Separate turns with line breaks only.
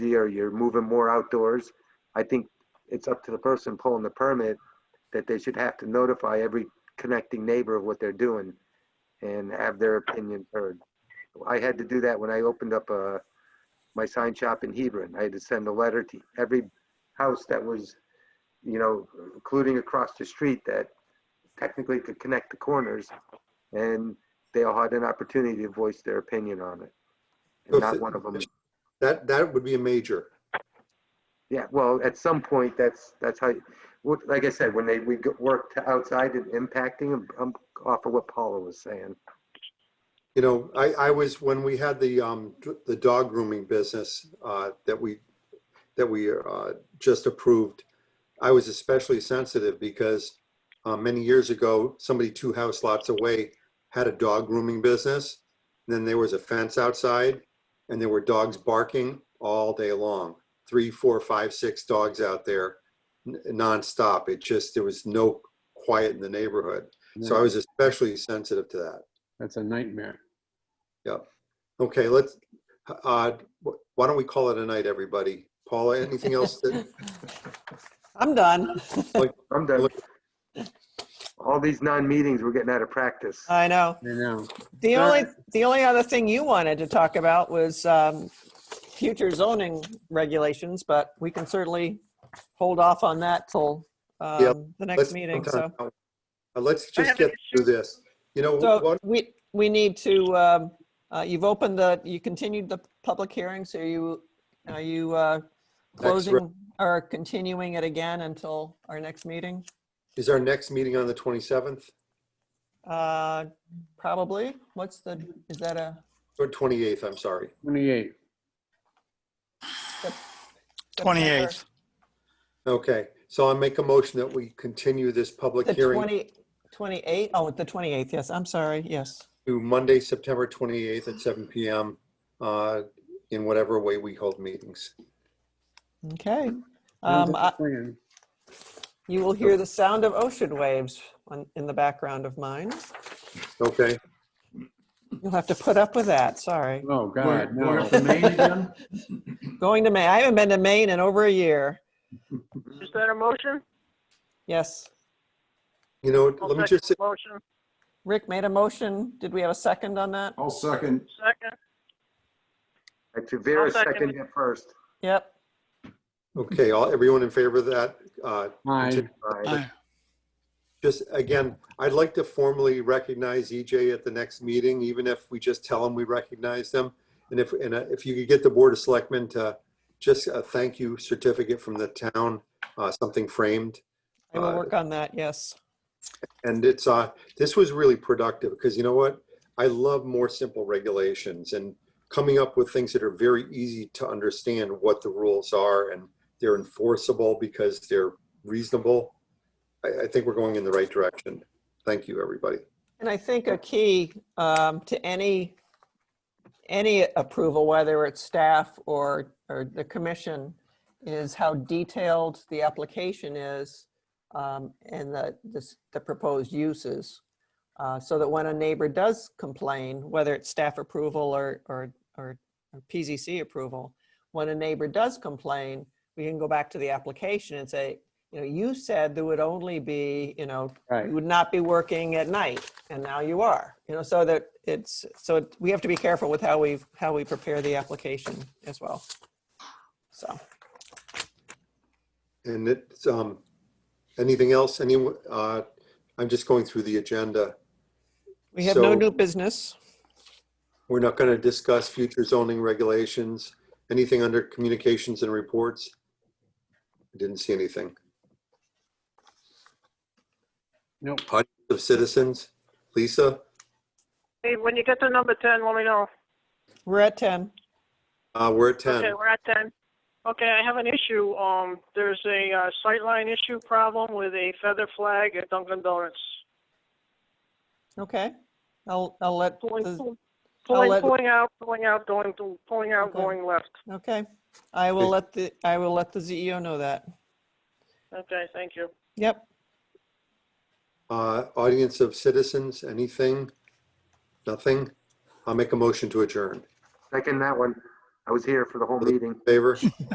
city or you're moving more outdoors, I think it's up to the person pulling the permit that they should have to notify every connecting neighbor of what they're doing and have their opinion heard. I had to do that when I opened up uh my sign shop in Hebron. I had to send a letter to every house that was, you know, including across the street that technically could connect the corners. And they all had an opportunity to voice their opinion on it. And not one of them
That, that would be a major.
Yeah, well, at some point, that's, that's how, what- like I said, when they, we go- work to outside and impacting, I'm- I'm off of what Paula was saying.
You know, I, I was, when we had the, um, d- the dog grooming business, uh, that we, that we, uh, just approved, I was especially sensitive because, uh, many years ago, somebody two house lots away had a dog grooming business. and Then there was a fence outside and there were dogs barking all day long. Three, four, five, six dogs out there n- nonstop. It just, there was no quiet in the neighborhood. So I was especially sensitive to that.
That's a nightmare.
Okay, let's, uh, wh- why don't we call it a night, everybody? Paula, anything else that,
I'm done.
I'm done. All these non-meetings, we're getting out of practice.
Uh,
I know.
I know.
The
All
only, the only other thing you wanted to talk about was um, future zoning regulations, but we can certainly hold off on that till
Yep.
um, the
let's.
next meeting, so.
Uh, Let's just get through this. You know,
So
what,
we, we need to, um, uh, you've opened the, you continued the public hearing, so you, are you uh,
re-
closing or continuing it again until our next meeting?
is our next meeting on the twenty-seventh
Uh, Probably. What's the, is that a?
or twenty-eighth, I'm sorry.
28.
September?
28th.
Okay, so I'll make a motion that we continue this public
The
hearing
20, 28, oh, the 28th, yes, I'm sorry, yes.
to Monday, September twenty-eighth at seven PM, uh, in whatever way we hold meetings.
Okay.
Sounds
Um,
like
I-
a plan.
You will hear the sound of ocean waves on- in the background of mine.
Okay,
You'll have to put up with that, sorry.
Oh,
We're-
God,
we're
no.
up to Maine again?
Going to Maine, I haven't been to Maine in over a year.
Is that a motion?
Yes,
you know,
I'll
let me
second
just, say-
the Motion,
Rick made a motion, did we have a second on that?
Oh,
I'll second.
second.
Actually, Vera
I'll second.
seconded it first.
Yep,
okay, all, everyone in favor of that, uh,
Hi.
Right.
Aye.
Just again, I'd like to formally recognize EJ at the next meeting, even if we just tell them we recognize them. And if, and uh, if you could get the Board of Selectmen to just a thank you certificate from the town, uh, something framed.
I will
Uh,
work on that, yes.
And it's, uh, this was really productive because you know what? I love more simple regulations and coming up with things that are very easy to understand what the rules are and they're enforceable because they're reasonable. I, I think we're going in the right direction. Thank you, everybody.
And I think a key um, to any, any approval, whether it's staff or, or the commission, is how detailed the application is um, and the, this- the proposed uses. uh, So that when a neighbor does complain, whether it's staff approval or, or, or or PZC approval, when a neighbor does complain, we can go back to the application and say, you know, you said there would only be, you know,
Right.
you would not be working at night, and now you are. You know, so that it's, so it- we have to be careful with how we, how we prepare the application as well. So,
And it's, um, anything else? Any, uh, I'm just going through the agenda.
we have
So-
no new business.
We're not going to discuss future zoning regulations. Anything under communications and reports? I didn't see anything.
Nope.
Audience of citizens? Lisa?
Hey, when you get to number 10, let me know.
We're at 10.
Uh, we're at
Okay,
10.
we're at 10. Okay, I have an issue. Um, there's a uh, sightline issue problem with a feather flag at Dunkin' Donuts.
Okay. I'll, I'll let,
Pulling,
the-
pull-
I'll let-
pulling, pulling out, pulling out, going, to- pulling out,
Okay.
going left.
okay. I will let the, I will let the CEO know that.
Okay, thank you.
Yep.
Uh, audience of citizens? Anything? Nothing? I'll make a motion to adjourn.
Second that one. I was here for the whole meeting.
Favor?